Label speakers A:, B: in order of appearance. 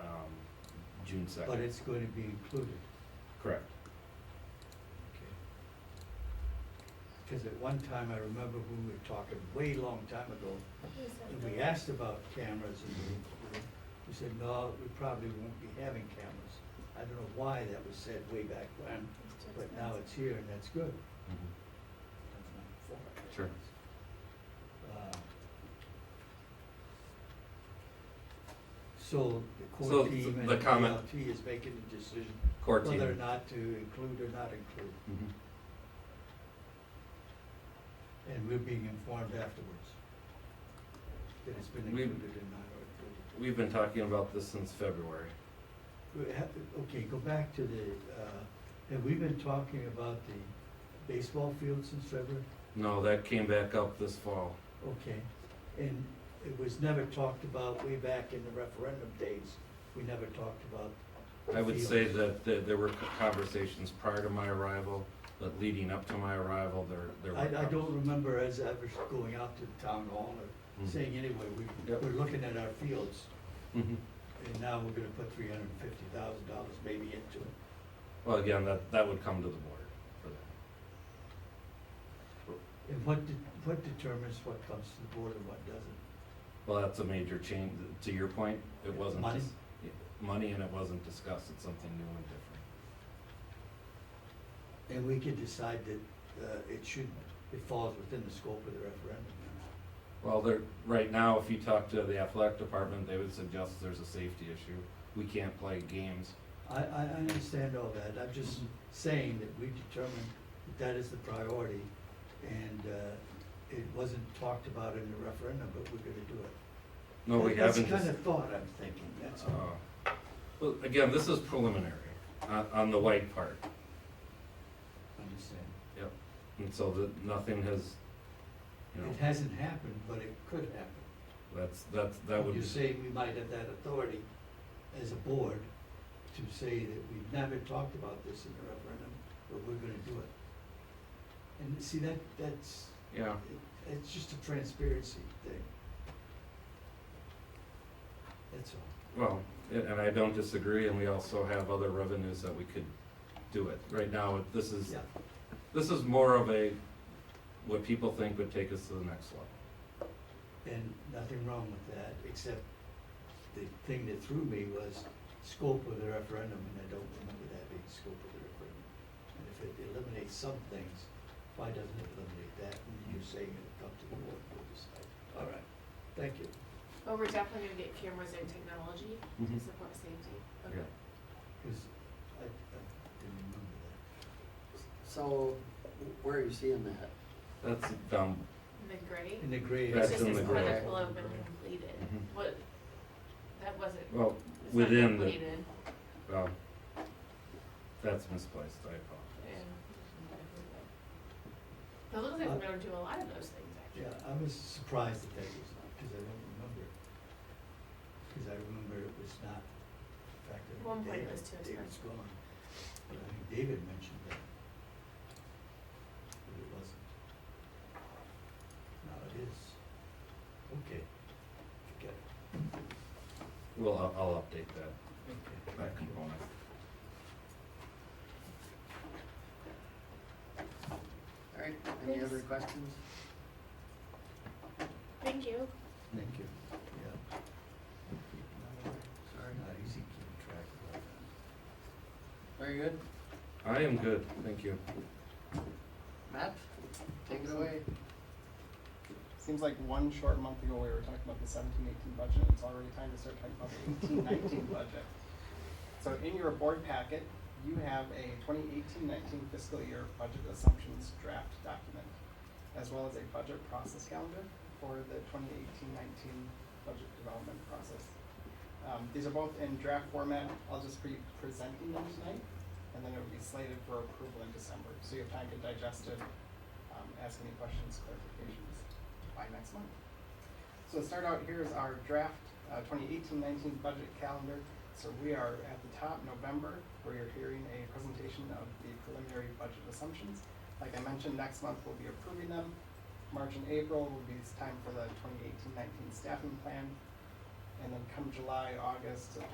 A: um, June
B: but
A: second,
B: it's going to be included.
A: correct.
B: Because at one time, I remember we were talking way long time ago, and we asked about cameras and we, we said, no, we probably won't be having cameras. I don't know why that was said way back when, but now it's here and that's good.
C: Mm-hmm.
A: Mhm. Sure.
B: Uh, So the
C: So
B: core team
C: the
B: and
C: comment-
B: ALT is making the decision
C: Core team.
B: whether or not to include or not include,
A: Mhm.
B: and we're being informed afterwards that it's been
C: We-
B: included or not included.
C: We've been talking about this since February.
B: We have to- Okay, go back to the, uh, have we been talking about the baseball field since February?
C: No, that came back up this fall.
B: Okay, and it was never talked about way back in the referendum days, we never talked about. the
C: I would say
B: fields.
C: that th- there were c- conversations prior to my arrival, but leading up to my arrival, there, there were.
B: I, I don't
C: conversations.
B: remember as ever going out to the town hall or
C: Mhm.
B: saying anyway, we,
C: Yep.
B: we're looking at our fields,
C: Mhm.
B: and now we're gonna put three hundred and fifty thousand dollars maybe into it.
C: Well, again, that, that would come to the board for that.
B: And what, de- what determines what comes to the board and what doesn't?
C: Well, that's a major change, to your point, it wasn't.
B: Money?
C: dis- yeah, Money and it wasn't discussed, it's something new and different.
B: And we could decide that, uh, it should, it falls within the scope of the referendum.
C: Well, there, right now, if you talk to the athletic department, they would suggest there's a safety issue. We can't play games.
B: I, I, I understand all that, I'm just
C: Mhm.
B: saying that we determined that that is the priority, and, uh, it wasn't talked about in the referendum, but we're gonna do it.
C: No, we
B: That's
C: haven't.
B: kind
C: dis-
B: of thought I'm thinking, that's all.
C: Uh, Well, again, this is preliminary on, on the white part.
B: Understand.
C: Yep. And so that nothing has, you know,
B: It hasn't happened, but it could happen.
C: that's, that's, that would.
B: You say we might have that authority as a board to say that we've never talked about this in the referendum, but we're gonna do it. And see, that, that's,
C: Yeah,
B: it's just a transparency thing. That's all.
C: well, and and I don't disagree, and we also have other revenues that we could do it. Right now, it- this is,
B: Yeah,
C: this is more of a, what people think would take us to the next level.
B: and nothing wrong with that, except the thing that threw me was scope of the referendum, and I don't remember that being scope of the referendum. And if it eliminates some things, why doesn't it eliminate that? And you're saying it'll come to the board, we'll decide. All right, thank you.
D: Well, we're definitely gonna get cameras and technology to
C: Mhm.
D: support safety.
C: Yeah.
D: Okay.
B: Because I, I didn't remember that.
E: So, where are you seeing that?
C: That's dumb.
D: And then gray.
B: In the gray
D: It
C: That's
B: area.
D: just
C: in
D: says
C: the gray.
D: project will have been completed.
C: Mhm.
D: What, that wasn't, it's
C: Well,
D: not
C: within the,
D: completed.
C: well, that's misplaced, I apologize.
D: Yeah. It looks like we're gonna do a lot of those things,
B: Yeah,
D: actually.
B: I was surprised that that was not, because I don't remember. Because I remember it was not, in fact, I
D: One
B: think
D: point it
B: David,
D: was too
B: David's
D: expensive.
B: gone. But I think David mentioned that. But it wasn't. Now it is. Okay, forget it,
C: Well, I'll, I'll update that,
B: okay.
C: that component.
E: All right, any other
D: Thanks.
E: questions?
D: Thank you.
B: Thank you. Yeah.
E: Sorry,
B: Not easy keeping track of all that.
E: very good.
C: I am good, thank you.
E: Matt, take it away.
F: Seems like one short month ago we were talking about the 17, 18 budget. It's already time to start talking about the 18, 19 budget. So in your board packet, you have a 2018, 19 fiscal year budget assumptions draft document, as well as a budget process calendar for the 2018, 19 budget development process. Um, these are both in draft format. I'll just be presenting them tonight, and then it will be slated for approval in December. So you have time to digest it, um, ask any questions, clarifications by next month. So to start out, here is our draft uh, 2018-19 budget calendar. So we are at the top, November, where you're hearing a presentation of the preliminary budget assumptions. Like I mentioned, next month we'll be approving them. March and April will be it's time for the 2018-19 staffing plan. And then come July, August, September,